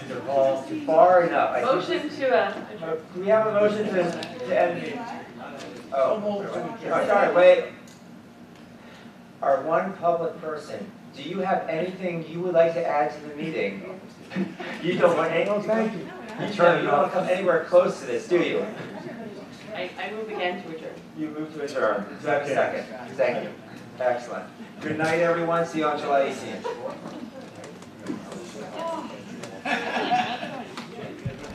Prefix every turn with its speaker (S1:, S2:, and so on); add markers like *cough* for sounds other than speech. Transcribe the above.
S1: far enough. I think-
S2: Motion to, uh, adjourn.
S1: Do we have a motion to, to end the? Oh, oh, sorry, wait. Our one public person, do you have anything you would like to add to the meeting? *laughs* You don't want any,
S3: No, thank you.
S1: you don't, you don't wanna come anywhere close to this, do you?
S2: I, I move again to adjourn.
S1: You move to adjourn. Do I have a Second, thank you. Excellent. Good night, everyone. See you on July eighteenth.